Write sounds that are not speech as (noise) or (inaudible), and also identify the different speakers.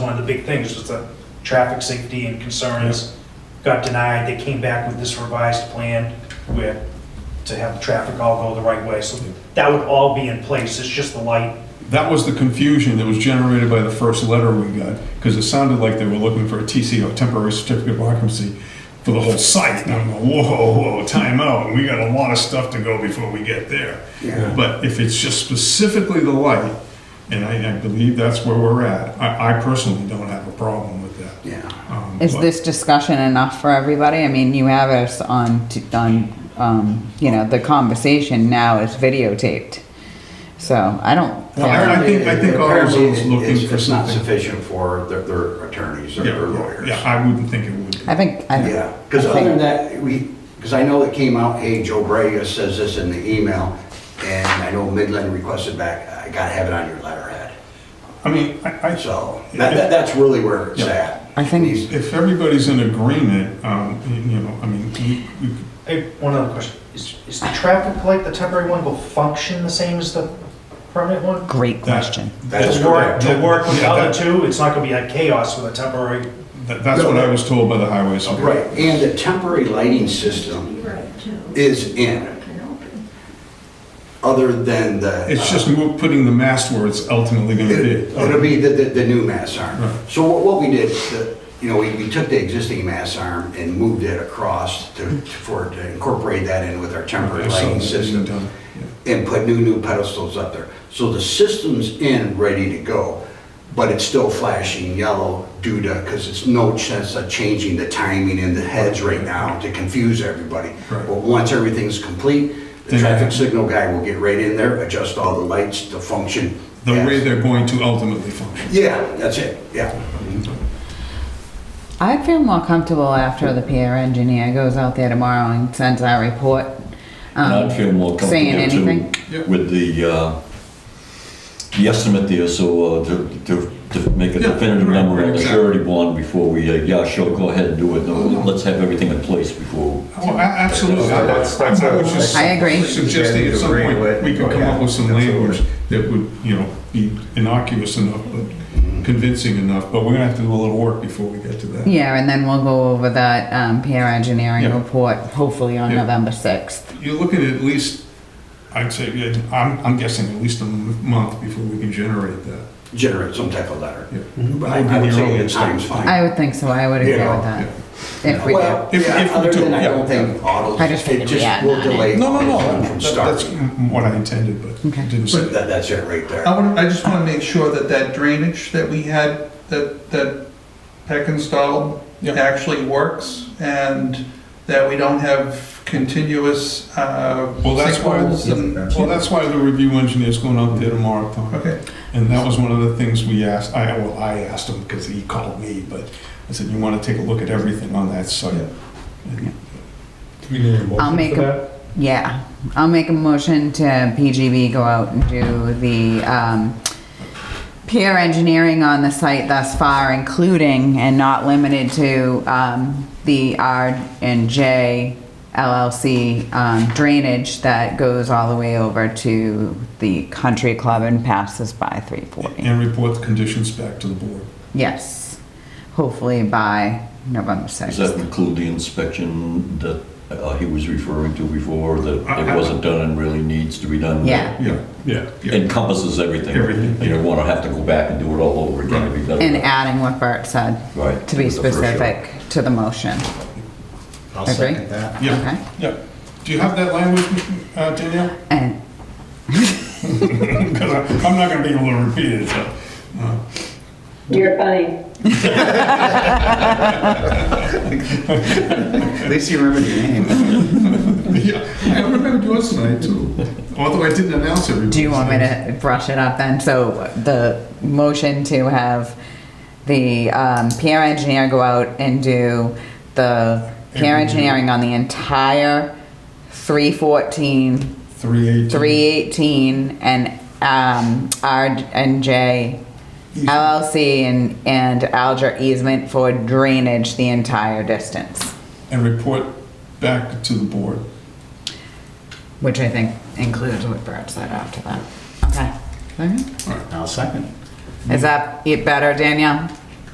Speaker 1: the big things was the traffic safety and concerns. Got denied, they came back with this revised plan where, to have the traffic all go the right way. So that would all be in place, it's just the light.
Speaker 2: That was the confusion that was generated by the first letter we got, because it sounded like they were looking for a TCO, temporary certificate of occupancy, for the whole site. And I'm going, whoa, whoa, time out, we got a lot of stuff to go before we get there.
Speaker 3: Yeah.
Speaker 2: But if it's just specifically the light, and I, I believe that's where we're at, I, I personally don't have a problem with that.
Speaker 3: Yeah.
Speaker 2: Um,
Speaker 4: Is
Speaker 2: but-
Speaker 4: this discussion enough for everybody? I mean, you have us on, t- on, um, you know, the conversation now is videotaped. So I don't.
Speaker 2: Well, I- I think, I think all of
Speaker 3: Apparently,
Speaker 2: those
Speaker 3: it-
Speaker 2: looking
Speaker 3: it's-
Speaker 2: for
Speaker 3: It's not
Speaker 2: something.
Speaker 3: sufficient for their, their attorneys or
Speaker 2: Yeah,
Speaker 3: their
Speaker 2: yeah,
Speaker 3: lawyers.
Speaker 2: yeah, I wouldn't think it would.
Speaker 4: I think, I think.
Speaker 3: Yeah, because other than that, we, because I know it came out, hey, Joe Braga says this in the email, and I know Midland requested back, I gotta have it on your letterhead.
Speaker 2: I mean, I, I.
Speaker 3: So, that, that- that's really where it's
Speaker 2: Yeah.
Speaker 3: at.
Speaker 4: I think-
Speaker 3: These-
Speaker 2: If everybody's in agreement, um, you know, I mean, we- we-
Speaker 1: Hey, one other question, is, is the traffic light, the temporary one, will function the same as the permanent one?
Speaker 4: Great
Speaker 2: that-
Speaker 4: question.
Speaker 3: That's
Speaker 1: It'll work,
Speaker 2: correct.
Speaker 1: it'll work with the
Speaker 2: Yeah,
Speaker 1: other
Speaker 2: that-
Speaker 1: two, it's not gonna be like chaos with a temporary.
Speaker 2: that- that's what I was told by the highway
Speaker 3: Right,
Speaker 2: supervisor.
Speaker 3: and the temporary lighting system
Speaker 5: Right, too.
Speaker 3: is in,
Speaker 5: Can open.
Speaker 3: other than the.
Speaker 2: It's just mo- putting the mast where it's ultimately gonna be.
Speaker 3: It- It'll be the, the, the new mass arm.
Speaker 2: Right.
Speaker 3: So what, what we did, the- you know, we, we took the existing mass arm and moved it across to, for, to incorporate that in with our temporary
Speaker 2: So,
Speaker 3: lighting system.
Speaker 2: done,
Speaker 3: and put new, new pedestals up there. So the system's in, ready to go, but it's still flashing yellow due to, because it's no sense of changing the timing in the heads right now to confuse everybody.
Speaker 2: Right.
Speaker 3: But once everything's complete, the
Speaker 2: Then-
Speaker 3: traffic signal guy will get right in there, adjust all the lights to function.
Speaker 2: The way
Speaker 3: as-
Speaker 2: they're going to ultimately function.
Speaker 3: Yeah, that's it, yeah.
Speaker 4: I'd feel more comfortable after the PR engineer goes out there tomorrow and sends our report.
Speaker 6: And
Speaker 4: um,
Speaker 6: I'd feel more
Speaker 4: Saying
Speaker 6: comfortable
Speaker 4: anything.
Speaker 6: too
Speaker 2: Yep.
Speaker 6: with the, uh, the estimate there, so uh, to, to, to make a
Speaker 2: Yeah,
Speaker 6: definitive
Speaker 2: right,
Speaker 6: number on the
Speaker 2: exactly.
Speaker 6: surety bond before we, uh, yeah, sure, go ahead and do it. No, Let's have everything in place before.
Speaker 2: Well, a- absolutely.
Speaker 7: Yeah, that's- that's
Speaker 2: I would
Speaker 7: how-
Speaker 2: just
Speaker 4: I agree.
Speaker 2: Suggesting at some point, we could come up with some
Speaker 7: Yeah, absolutely.
Speaker 2: language that would, you know, be innocuous enough, but convincing enough, but we're gonna have to do a little work before we get to that.
Speaker 4: Yeah, and then we'll go over that, um, PR engineering
Speaker 2: Yeah.
Speaker 4: report, hopefully on
Speaker 2: Yeah.
Speaker 4: November sixth.
Speaker 2: You're looking at at least, I'd say, yeah, I'm, I'm guessing at least a m- month before we can generate that.
Speaker 3: Generate some type of letter.
Speaker 2: Yeah.
Speaker 3: Mm-hmm. But I I would say the time's fine.
Speaker 4: I would think so, I would agree with
Speaker 3: Yeah.
Speaker 4: that, if we do.
Speaker 3: Well,
Speaker 2: If-
Speaker 3: yeah,
Speaker 2: if we
Speaker 3: other
Speaker 2: do,
Speaker 3: than I
Speaker 2: yeah.
Speaker 3: don't think autos,
Speaker 4: I just
Speaker 3: it
Speaker 4: figured we
Speaker 3: just
Speaker 4: had
Speaker 3: will
Speaker 4: none.
Speaker 3: delay.
Speaker 2: No, no, no,
Speaker 3: From
Speaker 2: that-
Speaker 3: starting.
Speaker 2: that's m- what I intended, but
Speaker 4: Okay.
Speaker 2: didn't say.
Speaker 3: That, that's it right there.
Speaker 8: I want, I just want to make sure that that drainage that we had, that, that Peck installed
Speaker 2: Yeah.
Speaker 8: actually works and that we don't have continuous, uh,
Speaker 2: Well, that's why,
Speaker 8: sinkholes and-
Speaker 2: well, that's why the review engineer's going out there tomorrow, Tom.
Speaker 8: Okay,
Speaker 2: And that was one of the things we asked, I, well, I asked him because he called me, but I said, you want to take a look at everything on that site? And
Speaker 7: Do we need a
Speaker 4: I'll
Speaker 7: motion
Speaker 4: make
Speaker 7: for that?
Speaker 4: a, yeah, I'll make a motion to PGB go out and do the, um, peer engineering on the site thus far, including and not limited to, um, the R and J LLC, um, drainage that goes all the way over to the country club and passes by three forty.
Speaker 2: and report the conditions back to the board.
Speaker 4: Yes, hopefully by November
Speaker 6: Does
Speaker 4: sixth.
Speaker 6: that include the inspection that uh, he was referring to before, that
Speaker 2: I- I-
Speaker 6: it wasn't done and really needs to be done?
Speaker 4: Yeah.
Speaker 2: Yeah, yeah, yeah.
Speaker 6: Encompasses everything.
Speaker 2: Everything.
Speaker 6: You don't want to have to go back and do it all over again. It'd be better.
Speaker 4: And adding what Bert said.
Speaker 6: Right,
Speaker 4: To be
Speaker 6: with the first shot.
Speaker 4: specific to the motion.
Speaker 7: I'll
Speaker 4: Agree.
Speaker 7: second that.
Speaker 4: Okay.
Speaker 2: Yeah, yeah. Do you have that language, uh, Danielle? (laughs)
Speaker 4: And,
Speaker 2: Because I'm not going to be able to repeat it, so. uh,
Speaker 9: You're funny.
Speaker 7: At least you remember your name.
Speaker 2: Yeah, I remembered yours tonight too. Although I didn't announce everything.
Speaker 4: do you want me to brush it up then? So the motion to have the um, PR engineer go out and do the PR engineering on the entire 314,
Speaker 2: Three eighteen.
Speaker 4: 318, and um, R and J LLC and, and Alger easement for drainage the entire distance,
Speaker 2: And report back to the board.
Speaker 4: which I think includes what Bert said after that. Okay. Okay.
Speaker 7: I'll second.
Speaker 4: Is that it better, Danielle?